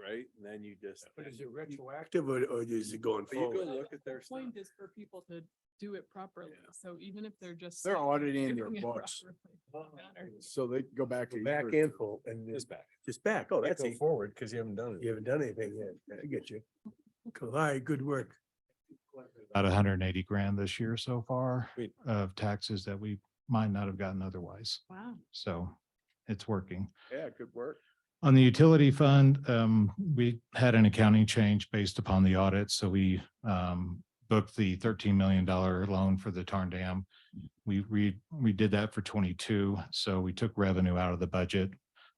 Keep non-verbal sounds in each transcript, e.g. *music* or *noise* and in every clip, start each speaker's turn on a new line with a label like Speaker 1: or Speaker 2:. Speaker 1: right? And then you just.
Speaker 2: But
Speaker 1: then-
Speaker 2: is it retroactive or, or is it going
Speaker 1: But you go
Speaker 2: forward?
Speaker 1: look at their stuff.
Speaker 3: Point is for people to do it properly. So even if they're just.
Speaker 4: They're auditing their
Speaker 3: doing it
Speaker 4: books,
Speaker 3: properly,
Speaker 4: so they go back to. a year
Speaker 2: Back
Speaker 4: or
Speaker 2: and
Speaker 4: two.
Speaker 2: full and
Speaker 5: It's
Speaker 2: just,
Speaker 5: back.
Speaker 2: just back. Oh,
Speaker 5: Can't
Speaker 2: that's
Speaker 5: go
Speaker 2: it.
Speaker 5: Forward, because you haven't done
Speaker 2: You
Speaker 5: it.
Speaker 2: haven't done anything yet. I get you. Cool. All right, good work.
Speaker 6: about hundred and eighty grand this year so far
Speaker 5: Sweet.
Speaker 6: of taxes that we might not have gotten otherwise.
Speaker 3: Wow.
Speaker 6: So it's working.
Speaker 4: Yeah, good work.
Speaker 6: On the utility fund, um, we had an accounting change based upon the audit, so we, um, booked the thirteen million dollar loan for the Tarn Dam. We re, we did that for twenty-two, so we took revenue out of the budget,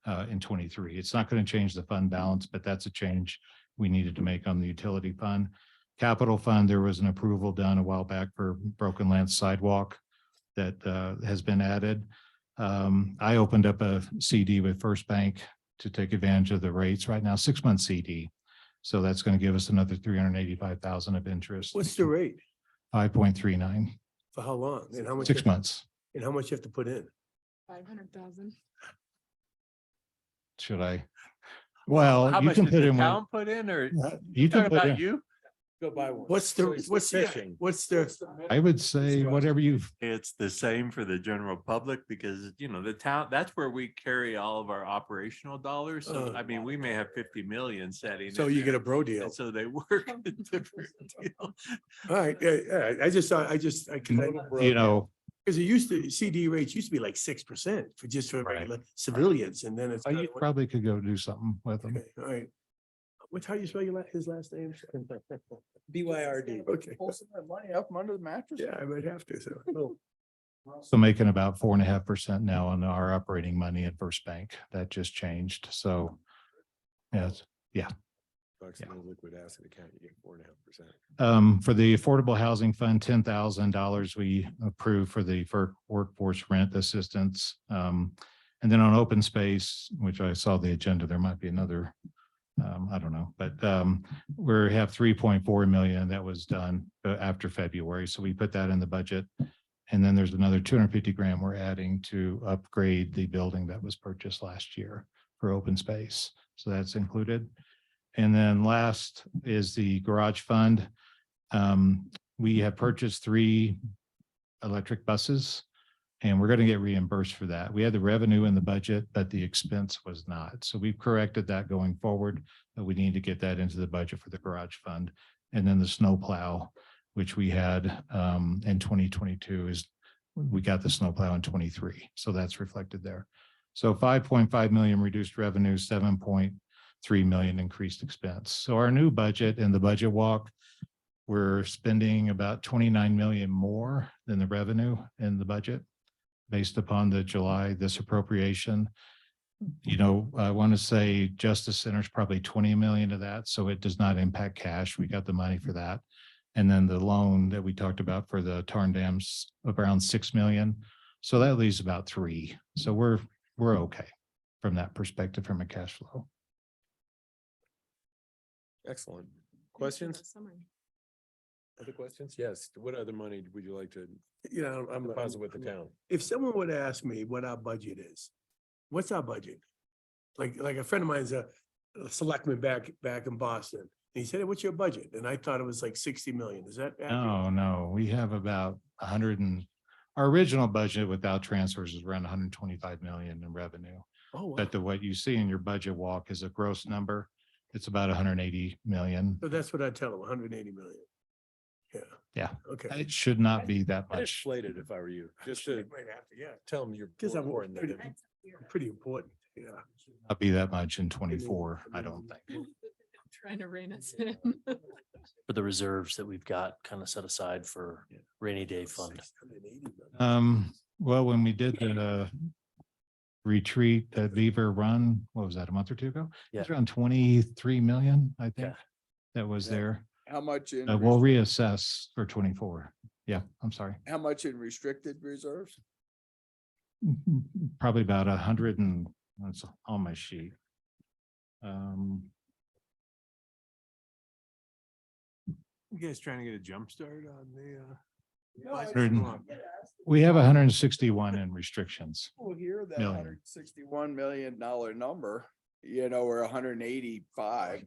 Speaker 6: uh, in twenty-three. It's not going to change the fund balance, but that's a change we needed to make on the utility fund. Capital fund, there was an approval done a while back for Broken Lance sidewalk that, uh, has been added. Um, I opened up a CD with First Bank to take advantage of the rates right now, six month CD. So that's going to give us another three hundred and eighty-five thousand of interest.
Speaker 2: What's the rate?
Speaker 6: Five point three nine,
Speaker 2: For how long? And how much? you
Speaker 6: six
Speaker 2: have-
Speaker 6: months.
Speaker 2: And how much you have to put in?
Speaker 3: Five hundred thousand.
Speaker 6: Should I? Well, you can put in, what- uh,
Speaker 5: put in or?
Speaker 6: you can put in,
Speaker 5: you?
Speaker 1: Go buy one.
Speaker 2: What's
Speaker 1: So
Speaker 2: the,
Speaker 1: it's
Speaker 2: what's the,
Speaker 1: fishing.
Speaker 2: what's the?
Speaker 6: I would say whatever you've,
Speaker 7: It's the same for the general public because, you know, the town, that's where we carry all of our operational dollars. So
Speaker 2: Uh.
Speaker 7: I mean, we may have fifty million setting.
Speaker 2: So
Speaker 7: in
Speaker 2: you get
Speaker 7: there.
Speaker 2: a bro deal.
Speaker 7: And so they work. *laughs* a
Speaker 2: *laughs*
Speaker 7: different deal.
Speaker 2: All right, yeah, yeah, I just, saw- I just, I,
Speaker 6: you
Speaker 2: because
Speaker 6: know,
Speaker 2: it used to, CD rates used to be like six percent for just for
Speaker 6: Right.
Speaker 2: regular civilians and then it's.
Speaker 6: uh, you
Speaker 2: kinda went-
Speaker 6: probably could go do something with them.
Speaker 2: Okay, All right. What's how you spell your, la- his last name?
Speaker 1: *laughs* B Y R D.
Speaker 2: *laughs* Okay,
Speaker 4: Pull some of that money up from under the mattress.
Speaker 2: yeah, I might have to, *laughs* so. cool.
Speaker 6: So making about four and a half percent now on our operating money at First Bank. That just changed. So yes.
Speaker 5: Bucks in a liquid asset account, you get four and a half percent.
Speaker 6: Um, for the Affordable Housing Fund, ten thousand dollars we approved for the for workforce rent assistance. Um, and then on open space, which I saw the agenda, there might be another, um, I don't know, but, um, we have three point four million that was done uh, after February, so we put that in the budget. And then there's another two hundred fifty grand we're adding to upgrade the building that was purchased last year for open space, so that's included. And then last is the garage fund. Um, we have purchased three electric buses. And we're gonna get reimbursed for that. We had the revenue in the budget, but the expense was not. So we've corrected that going forward. But we need to get that into the budget for the garage fund. And then the snowplow, which we had um in twenty twenty-two is, we got the snowplow in twenty-three, so that's reflected there. So five point five million reduced revenue, seven point three million increased expense. So our new budget and the budget walk we're spending about twenty-nine million more than the revenue in the budget based upon the July, this appropriation. You know, I want to say Justice Center's probably twenty million of that, so it does not impact cash. We got the money for that. And then the loan that we talked about for the Tarn Dams of around six million. So that leaves about three. So we're, we're okay from that perspective, from a cash flow.
Speaker 5: Excellent. Questions?
Speaker 3: Summary.
Speaker 5: Other questions? Yes. What other money would you like to
Speaker 2: You know, I'm. I'm-
Speaker 5: deposit with the
Speaker 2: I'm-
Speaker 5: town?
Speaker 2: If someone would ask me what our budget is, what's our budget? Like, like a friend of mine's a a selectman back, back in Boston. And he said, what's your budget? And I thought it was like sixty million. Is that? accurate?
Speaker 6: No, no, we have about a hundred and, our original budget without transfers is around hundred and twenty-five million in revenue.
Speaker 2: Oh, wow.
Speaker 6: But the, what you see in your budget walk is a gross number. It's about hundred and eighty million.
Speaker 2: So that's what I tell them, hundred and eighty million. Yeah.
Speaker 6: Yeah.
Speaker 2: Okay.
Speaker 6: It should not be that
Speaker 5: I'd
Speaker 6: much.
Speaker 5: inflate it if I were you, just to
Speaker 2: Right after, yeah.
Speaker 5: tell them you're.
Speaker 2: Because I'm
Speaker 5: more important than
Speaker 2: pretty-
Speaker 5: them.
Speaker 2: Pretty important, yeah.
Speaker 6: Not be that much in twenty-four, I don't think.
Speaker 3: Trying to rein us in.
Speaker 8: for the reserves that we've got kind of set aside for
Speaker 2: Yeah.
Speaker 8: rainy day fund.
Speaker 6: Um, well, when we did the uh, retreat at Beaver Run, what was that, a month or two ago? It was
Speaker 8: Yeah.
Speaker 6: around twenty-three million, I think,
Speaker 8: Yeah.
Speaker 6: that was
Speaker 4: Yeah.
Speaker 6: there.
Speaker 4: How much in,
Speaker 6: Uh, We'll
Speaker 4: res-
Speaker 6: reassess for twenty-four. Yeah, I'm sorry.
Speaker 4: how much in restricted reserves?
Speaker 6: probably about a hundred and, that's on my sheet. Um,
Speaker 5: You guys trying to get a jump start on the, uh?
Speaker 6: Hundred and- we have hundred and sixty-one in restrictions.
Speaker 4: People hear that
Speaker 6: Million.
Speaker 4: hundred sixty-one million dollar number, you know, or hundred and eighty-five,